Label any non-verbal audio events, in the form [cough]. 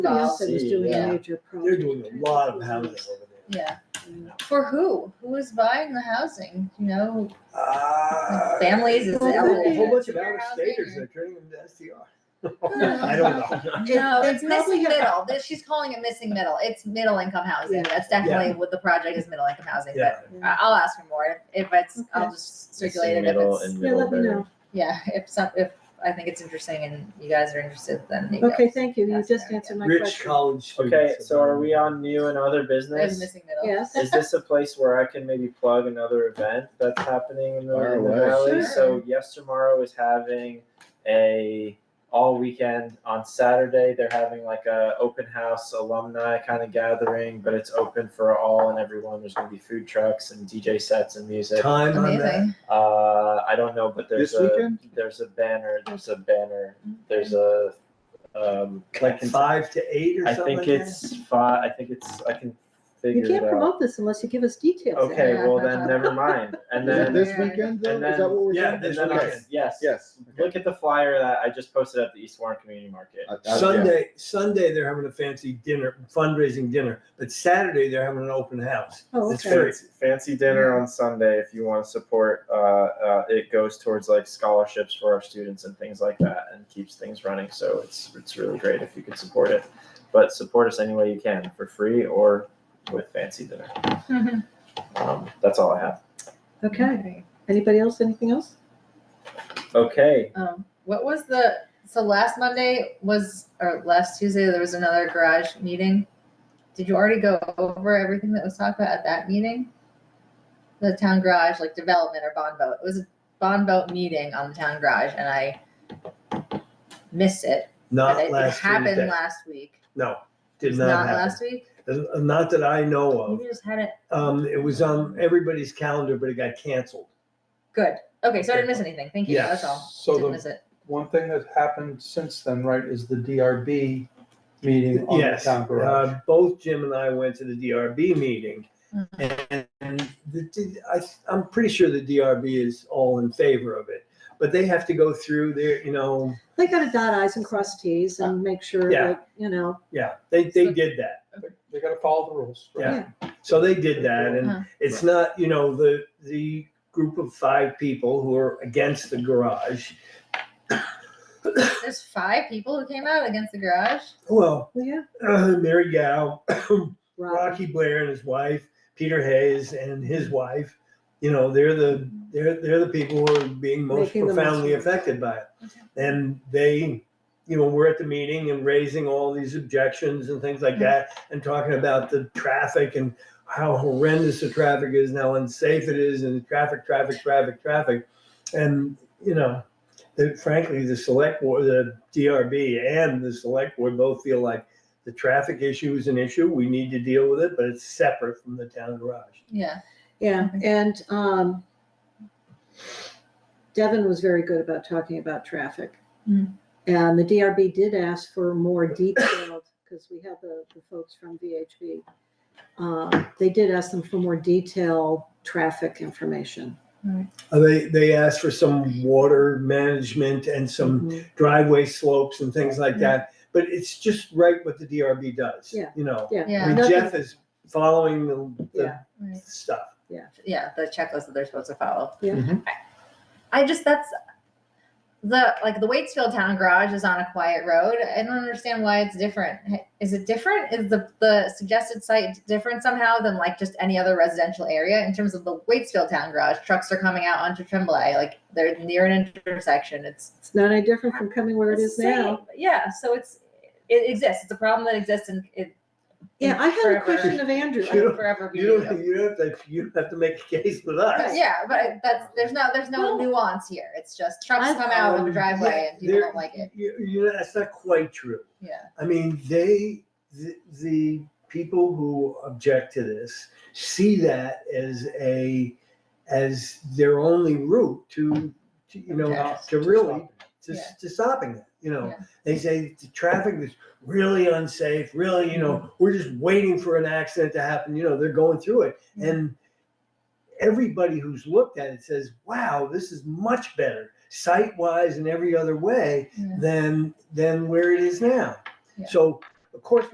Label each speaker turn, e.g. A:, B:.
A: Somebody
B: No,
A: else that was doing
C: Yeah.
A: a major
C: They're
A: project.
C: doing a lot of housing over there.
B: yeah. For who? Who is buying the housing? You know,
C: Ah.
B: families is
C: A whole- whole
B: elderly.
C: bunch of out of staters are turning them to STR.
B: [laughs]
C: I
D: [laughs]
C: don't know.
B: Uh, No,
A: They
B: it's
A: probably
B: missing
A: have-
B: middle. This- She's calling it missing middle. It's middle income housing.
A: Yeah.
B: That's definitely what the project is, middle income housing, but
C: Yeah,
B: I- I'll ask for more. If if it's, I'll
A: Okay.
B: just circulate it if
D: Middle
B: it's,
D: and
A: Yeah, let me
D: Middlebury.
A: know.
B: yeah, if some, if I think it's interesting and you guys are interested, then you go.
A: Okay, thank you. You
B: That's
A: just
B: there,
A: answered my
C: Rich
A: question.
C: college students.
D: Okay, so are we on new and other
B: There's
D: business?
B: missing middle.
A: Yes.
D: Is this a place where I can maybe plug another event that's happening in the,
E: Fire
D: in the
E: away.
D: valley?
B: Sure.
D: So yes tomorrow is having a all weekend on Saturday. They're having like a open house alumni kind of gathering, but it's open for all and everyone. There's gonna be food trucks and DJ sets and music.
C: Time on that.
B: Amazing.
D: Uh, I don't know, but there's
E: This
D: a
E: weekend?
D: there's a banner. There's a banner. There's a um. I
C: Like
D: can-
C: five to eight or
D: I
C: something
D: think
C: like that?
D: it's five. I think it's. I can
A: You
D: figure
A: can't
D: it out.
A: promote this unless you give us details.
D: Okay,
B: Yeah.
D: well then,
A: [laughs]
D: never mind. And
E: Is it
D: then,
E: this
B: Yeah.
E: weekend though?
D: And
E: Is
D: then-
E: that what we're
C: yeah,
E: doing?
D: and
C: this
D: then I-
C: weekend.
D: yes,
E: Yes.
D: Look at the flyer that I just posted at the East Warren Community Market.
E: I- I- yeah.
C: Sunday, Sunday, they're having a fancy dinner, fundraising dinner, but Saturday, they're having an open house.
A: Oh,
C: It's
A: okay.
C: free.
D: Fancy, fancy dinner on Sunday if you want to support. Uh, uh, it goes towards like scholarships for our students and things like that, and keeps things running. So it's it's really great if you could support it. But support us any way you can for free or with fancy dinner.
B: [laughs]
D: Um, that's all I have.
A: Okay. Anybody else? Anything else?
D: Okay.
B: Um, what was the, so last Monday was, or last Tuesday, there was another garage meeting. Did you already go over everything that was talked about at that meeting? The town garage, like development or bond vote. It was a bond vote meeting on the town garage and I missed it. but
C: Not
B: it- It
C: last
B: happened
C: Tuesday.
B: last week.
C: No,
B: It
C: did
B: was
C: not happen.
B: last week?
C: Uh, Not that I know of.
B: We just had it,
C: Um, it was on everybody's calendar, but it got canceled.
B: good. Okay, so I didn't miss anything. Thank you,
C: Yeah.
B: that's all.
F: So
B: Didn't
F: the
B: miss it.
F: one thing that's happened since then, right, is the DRB meeting on the
C: Yes,
F: town garage.
C: uh, both Jim and I went to the DRB meeting. And the, D- I, I'm pretty sure the DRB is all in favor of it, but they have to go through their, you know,
A: They gotta dot i's and cross t's and make sure
C: Yeah.
A: that, you know,
C: yeah, they, they did that.
F: They gotta follow the rules. right?
C: Yeah. So they did that
B: Huh.
C: and it's not, you know, the, the group of five people who are against the garage.
B: There's five people who came out against the garage?
C: Well, uh,
A: well, yeah.
C: Mary Gow,
A: Rob,
C: Rocky Blair and his wife, Peter Hayes and his wife, you know, they're the, they're, they're the people who are being most
A: Making the most
C: profoundly
A: of it.
C: affected by it. And they, you know, were at the meeting and raising all these objections and things
A: Mm-hmm.
C: like that and talking about the traffic and how horrendous the traffic is and how unsafe it is and traffic, traffic, traffic, traffic. And, you know, that frankly, the select board, the DRB and the select board both feel like the traffic issue is an issue. We need to deal with it, but it's separate from the town garage.
B: Yeah.
A: Yeah, and, um, Devin was very good about talking about traffic.
B: Mm.
A: And the DRB did ask for more detailed, because we have the, the folks from VHB. Uh, they did ask them for more detailed traffic information.
C: Uh, They, they asked for some water management and some
B: Mm-hmm.
A: Mhm.
C: driveway slopes and things like that. But it's just right what the DRB does,
A: Yeah.
C: you know?
A: Yeah.
B: Yeah.
C: I mean,
A: Nothing-
C: Jeff is following the, the
A: Yeah.
B: Right.
C: stuff.
B: yeah, the checklist that they're supposed to follow.
A: Yeah.
C: Mhm.
B: I, I just that's the like the Waitsfield Town Garage is on a quiet road. I don't understand why it's different. Is it different? Is the the suggested site different somehow than like just any other residential area in terms of the Waitsfield Town Garage? Trucks are coming out onto Tremblay, like they're near an intersection. It's
A: It's not any different from coming where it is now.
B: Same. Yeah, so it's it exists. It's a problem that exists and it
A: Yeah, I had a
B: Forever.
A: question of Andrew.
C: You
B: will
C: don't-
B: forever be.
C: You don't, you don't have to, you don't have to make a case with us.
B: Yeah, but that's, there's no, there's no
A: Well-
B: nuance here. It's just trucks
A: I've-
B: come out of
C: Um,
B: a driveway and people
C: there-
B: don't like it.
C: You, you know, that's not quite true.
B: Yeah.
C: I mean, they, the, the people who object to this see that as a, as their only route to, to, you know,
B: Yes.
C: to really, to,
B: Yeah.
C: to stopping it, you know.
B: Yeah.
C: They say the traffic is really unsafe, really, you
B: Mm-hmm.
C: know, we're just waiting for an accident to happen, you know, they're going through it.
B: Yeah.
C: And everybody who's looked at it says, wow, this is much better site-wise and every other way
B: Yeah.
C: than than where it is now.
B: Yeah.
C: So Of course,